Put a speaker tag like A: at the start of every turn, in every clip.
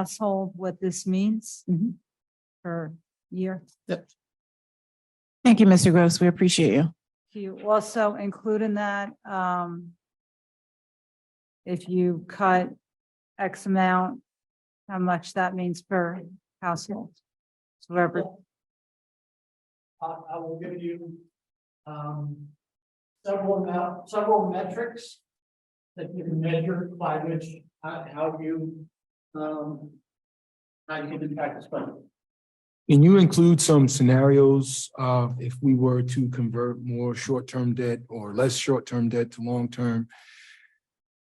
A: household what this means
B: Mm-hmm.
C: Mhm.
A: per year.
C: Thank you, Mr. Gross. We appreciate you.
A: You also include in that, um, if you cut X amount, how much that means per household. So Whatever,
B: I, I will give you, um, several, mou- several metrics that you can measure by which, uh, how you, um, how you impact the spending.
D: Can you include some scenarios uh if we were to convert more short-term debt or less short-term debt to long-term?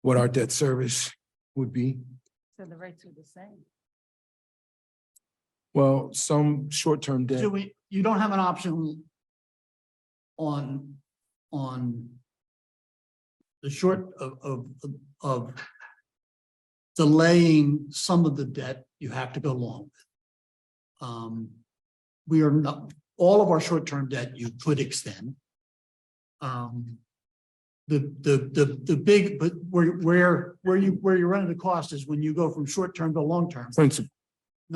D: What our debt service would be?
A: so the rates are the same.
D: Well, some short-term debt,
B: So we, you don't have an option on, on the short of, of, of delaying some of the debt, you have to go long. with. Um, we are not, all of our short-term debt you could extend. Um, the, the, the, the big, but where, where, where you, where you run into cost is when you go from short-term to long-term
D: principal,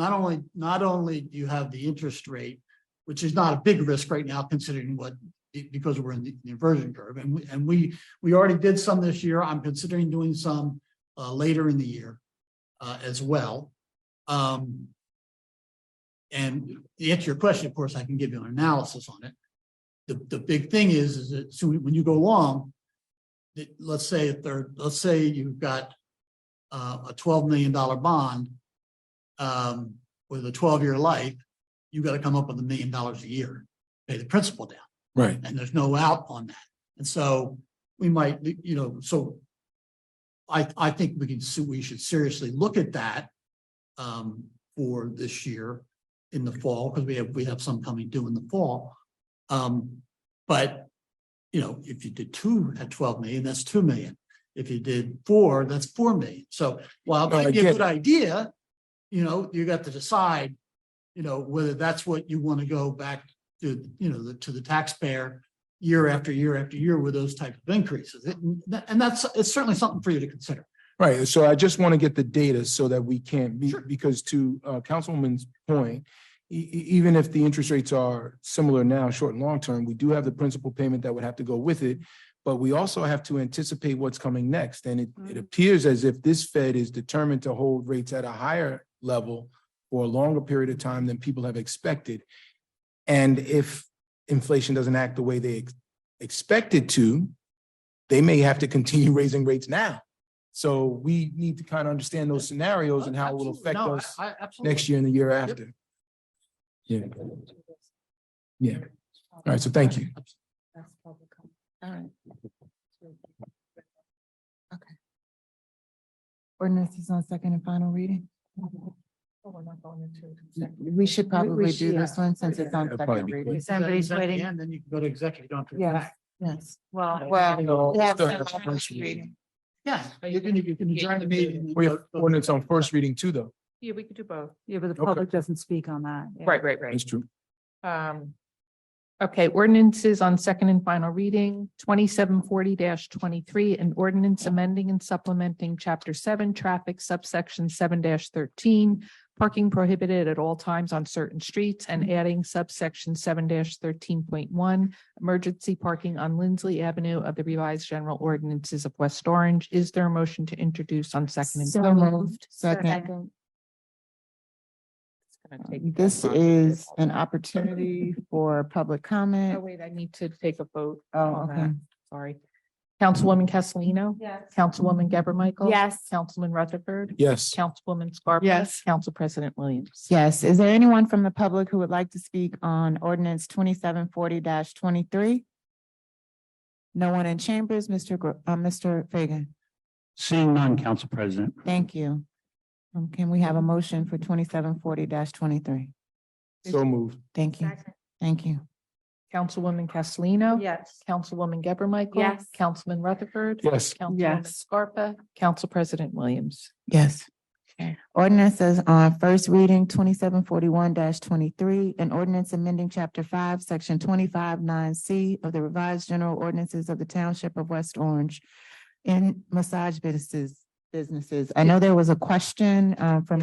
B: not only, not only do you have the interest rate, which is not a big risk right now considering what, be- because we're in the the inversion curve and we, and we, we already did some this year. I'm considering doing some uh, later in the year uh, as well. Um, and to answer your question, of course, I can give you an analysis on it. The, the big thing is, is that so when you go long, that- let's say if there, let's say you've got uh, a twelve million dollar bond um, with a twelve-year life, you gotta come up with a million dollars a year, pay the principal down,
D: right?
B: and there's no out on that. And so we might, you know, so I, I think we can, se- we should seriously look at that um, for this year in the fall, because we have, we have some coming due in the fall. Um, but, you know, if you did two at twelve million, that's two million. If you did four, that's four million. So while it
D: No, I
B: might be a
D: get
B: good idea, you know, you got to decide, you know, whether that's what you want to go back to, you know, the- to the taxpayer year after year after year with those type of increases. It- And that's, it's certainly something for you to consider.
D: Right, so I just want to get the data so that we can't be,
B: Sure.
D: because to uh Councilwoman's point, e- e- even if the interest rates are similar now, short and long term, we do have the principal payment that would have to go with it. But we also have to anticipate what's coming next, and it it
A: Mhm.
D: appears as if this Fed is determined to hold rates at a higher level for a longer period of time than people have expected. And if inflation doesn't act the way they ex- expect it to, they may have to continue raising rates now. So we need to kind of understand those scenarios and how it will affect
B: No,
D: us
B: I- I- absolutely.
D: next year and the year after. Yeah. Yeah. All right, so thank you.
E: That's public comment. All right.
C: Ordinance is on second and final reading.
E: Oh, we're not going into executive.
C: We should probably do
A: should,
C: this one since it's on
D: That'd
C: second
D: probably be
C: reading.
B: Is that-
A: Somebody's
B: is that the
A: waiting.
B: end? Then you can go to executive. you don't have to go
C: Yes,
B: back.
C: yes.
A: Well,
C: Well, we have
D: Still have
C: some on
D: first
C: first reading.
B: Yeah, you can, you can adjourn the meeting.
D: We have ordinance on first reading too, though.
E: Yeah, we could do both.
A: yeah, but the
D: Okay.
A: public doesn't speak on that. yeah.
E: Right, right,
D: That's
E: right.
D: true.
E: Um, okay, ordinances on second and final reading, twenty-seven forty twenty-three, an ordinance amending and supplementing chapter seven, traffic subsection seven thirteen, parking prohibited at all times on certain streets and adding subsection seven thirteen point one, emergency parking on Lindsley Avenue of the revised general ordinances of West Orange. Is there a motion to introduce on second and?
C: So
E: final?
C: moved. Second. Um, This is an opportunity for public
E: Oh,
C: comment.
E: wait, I need to take a vote.
C: Oh,
E: on
C: okay.
E: that. Sorry. Councilwoman Castellino?
A: Yes.
E: Councilwoman Gabor Michael?
C: Yes.
E: Councilman Rutherford?
D: Yes.
E: Councilwoman Scarpa?
C: Yes.
E: Council President Williams?
C: Yes. Is there anyone from the public who would like to speak on ordinance twenty-seven forty twenty-three? No one in chambers, Mr. Gro- uh, Mr. Fagan.
F: Seeing none, Council President.
C: Thank you. Um, can we have a motion for twenty-seven forty twenty-three?
D: So moved.
C: Thank you. Thank you.
E: Councilwoman Castellino?
A: Yes.
E: Councilwoman Gabor Michael?
C: Yes.
E: Councilman Rutherford?
D: Yes.
E: Councilwoman Scarpa? Council President Williams?
C: Yes.
E: Okay.
C: Ordinances on first reading, twenty-seven forty-one twenty-three, an ordinance amending chapter five, section twenty-five nine C of the revised general ordinances of the township of West Orange in massage businesses, businesses. I know there was a question, uh, from